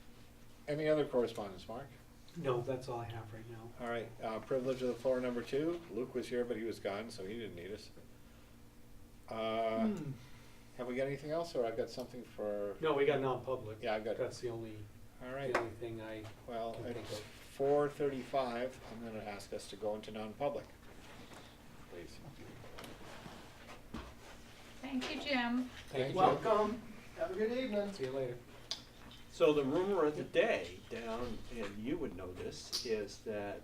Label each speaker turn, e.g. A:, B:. A: Any other correspondence, Mark?
B: No, that's all I have right now.
A: All right, uh, privilege of the floor number two. Luke was here, but he was gone, so he didn't need us. Uh,
B: Hmm.
A: Have we got anything else, or I've got something for?
B: No, we got non-public.
A: Yeah, I've got-
B: That's the only,
A: All right,
B: the only thing I,
A: well,
B: Can think
A: it's
B: of.
A: four thirty-five. I'm gonna ask us to go into non-public. Please.
C: Thank you, Jim.
A: Thank you.
D: Welcome, have a good evening.
B: see you later.
D: So the rumor of the day down, and you would know this, is that